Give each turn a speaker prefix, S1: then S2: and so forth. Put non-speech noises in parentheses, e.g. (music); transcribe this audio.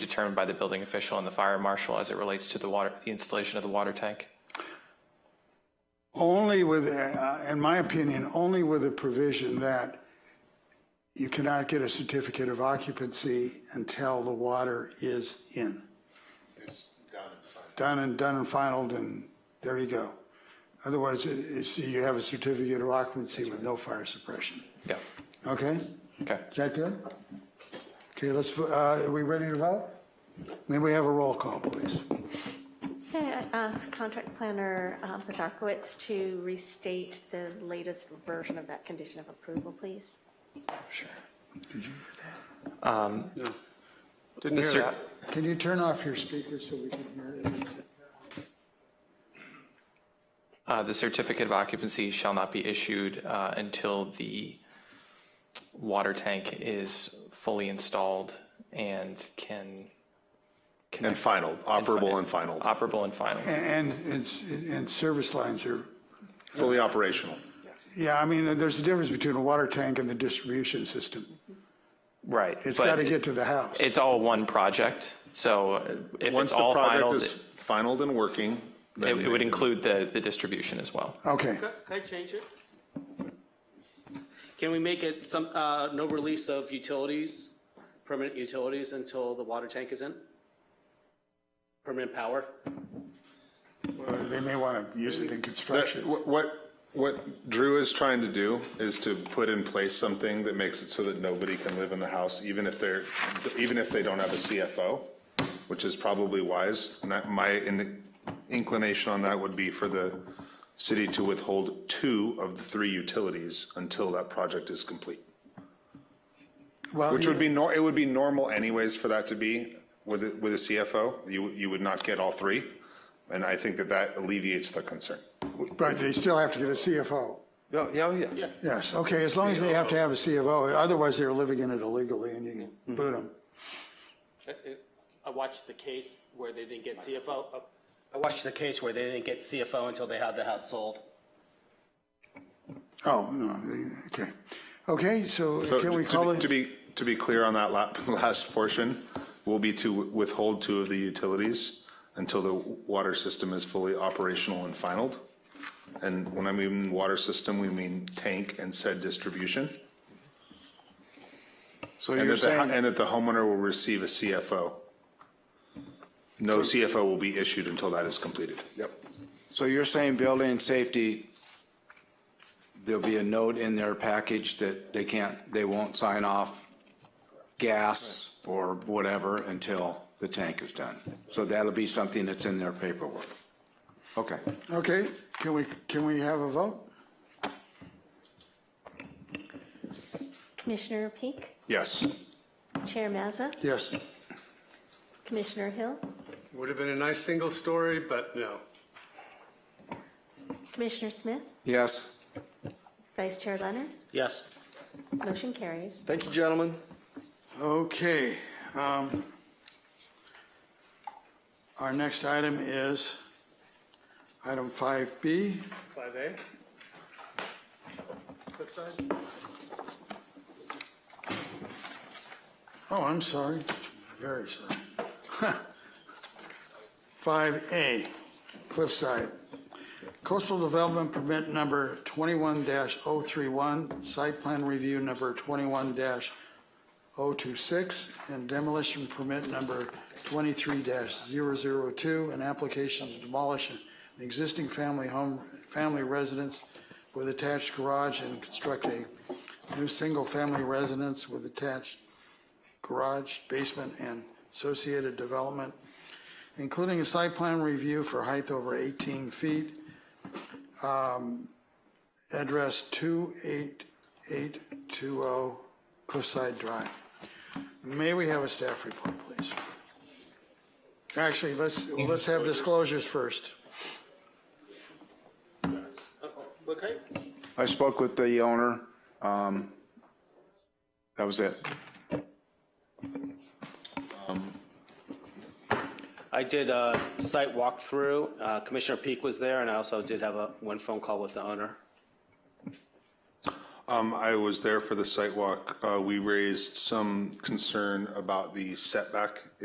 S1: determined by the building official and the fire marshal as it relates to the water, the installation of the water tank?
S2: Only with, uh, in my opinion, only with the provision that you cannot get a certificate of occupancy until the water is in. It's done and Done and finalled, and there you go. Otherwise, it- it's, you have a certificate of occupancy with no fire suppression.
S1: Yeah,
S2: Okay?
S1: okay.
S2: Is that good? Okay, let's, vo- uh, are we ready to vote? May we have a roll call, please?
S3: Can I ask contract planner uh, Bazarkowitz to restate the latest version of that condition of approval, please?
S1: Sure.
S4: Didn't hear
S1: cer-
S4: that.
S2: Can you turn off your speaker so we can hear it?
S1: Uh, The certificate of occupancy shall not be issued uh, until the water tank is fully installed and can,
S5: And final, operable and final,
S1: operable and final.
S2: And, and, and service lines are,
S5: fully operational.
S2: yeah, I mean, there's a difference between a water tank and the distribution system.
S1: Right.
S2: It's
S1: but
S2: got to get to the house.
S1: It's all one project, so uh, if
S5: Once
S1: it's
S5: the
S1: all final,
S5: project is
S1: it
S5: finalled and working, then
S1: it would include the, the distribution as well.
S2: Okay,
S6: Can can I change it? Can we make it some, uh, no release of utilities, permanent utilities until the water tank is in? Permanent power?
S2: Well, they may want to use it in
S5: That-
S2: construction.
S5: wh- What, what Drew is trying to do is to put in place something that makes it so that nobody can live in the house, even if they're, even if they don't have a CFO, which is probably wise. And that- my in- inclination on that would be for the city to withhold two of the three utilities until that project is complete.
S2: Well,
S5: Which would be, nor- it would be normal anyways for that to be with, a- with a CFO. You, you would not get all three. And I think that that alleviates the concern.
S2: But they still have to get a CFO.
S4: Yeah,
S5: oh,
S4: yeah, yeah.
S2: Yes, okay, as long as they have to have a CFO, otherwise they're living in it illegally and you can boot them.
S6: I watched the case where they didn't get CFO. uh, I watched the case where they didn't get CFO until they had the house sold.
S2: Oh, no, they- okay. Okay, so
S5: So
S2: can we
S5: to-
S2: call
S5: To
S2: it,
S5: be, to be clear on that la- (laughs) last portion, will be to withhold two of the utilities until the water system is fully operational and finalled. And when I mean water system, we mean tank and said distribution.
S4: So
S5: And
S4: you're
S5: that, the ho-
S4: saying,
S5: and that the homeowner will receive a CFO. No CFO will be issued until that is completed. Yep.
S4: so you're saying building safety, there'll be a note in their package that they can't, they won't sign off gas or whatever until the tank is done. So that'll be something that's in their paperwork. Okay.
S2: okay, can we, can we have a vote?
S3: Commissioner Peak,
S5: Yes.
S3: Chair Mazza,
S2: Yes.
S3: Commissioner Hill,
S7: Would have been a nice single story, but no.
S3: Commissioner Smith,
S4: Yes?
S3: Vice Chair Leonard,
S6: Yes.
S3: motion carries.
S8: Thank you, gentlemen.
S2: Okay. um, Our next item is item 5B.
S7: 5A? Flip side?
S2: Oh, I'm sorry, very sorry. (laughs) 5A, Cliffside. Coastal Development Permit Number 21-031, Site Plan Review Number 21-026, and Demolition Permit Number 23-002, an application to demolish an existing family home, family residence with attached garage and construct a new single-family residence with attached garage, basement, and associated development, including a site plan review for height over 18 feet. Um, Address 28820 Cliffside Drive. May we have a staff report, please? Actually, let's, let's have disclosures first.
S6: Okay.
S4: I spoke with the owner. Um, That was it.
S6: I did a site walkthrough. Uh, Commissioner Peak was there, and I also did have a, one phone call with the owner.
S5: Um, I was there for the site walk. Uh, we raised some concern about the setback